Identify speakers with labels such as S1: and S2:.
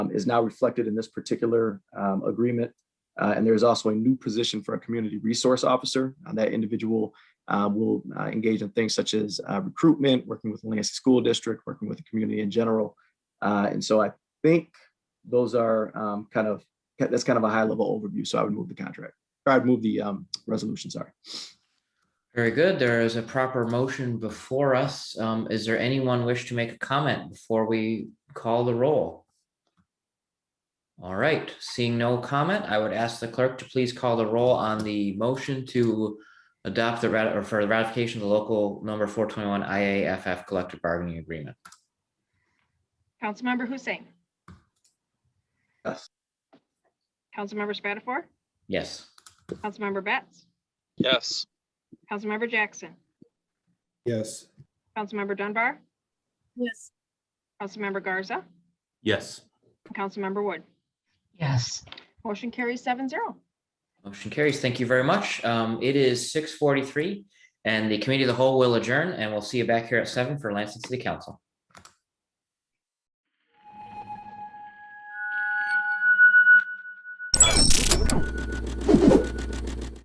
S1: um, is now reflected in this particular um, agreement. Uh, And there is also a new position for a community resource officer. Uh, That individual uh, will uh, engage in things such as uh, recruitment, working with Lansing School District, working with the community in general. Uh, And so I think those are um, kind of, that's kind of a high level overview. So I would move the contract, or I'd move the um, resolution, sorry.
S2: Very good. There is a proper motion before us. Um, is there anyone wish to make a comment before we call the roll? All right, seeing no comment, I would ask the clerk to please call the roll on the motion to adopt the rat or for the ratification of the local number four twenty-one IAFF collective bargaining agreement.
S3: Councilmember Hussein.
S1: Yes.
S3: Councilmember Spatafor.
S2: Yes.
S3: Councilmember Betts.
S4: Yes.
S3: Councilmember Jackson.
S5: Yes.
S3: Councilmember Dunbar.
S6: Yes.
S3: Councilmember Garza.
S7: yes,
S3: and Councilmember Wood.
S6: Yes.
S3: Motion carries seven zero.
S2: Motion carries. Thank you very much. Um, it is six forty-three and the committee of the whole will adjourn and we'll see you back here at seven for Lansing City Council.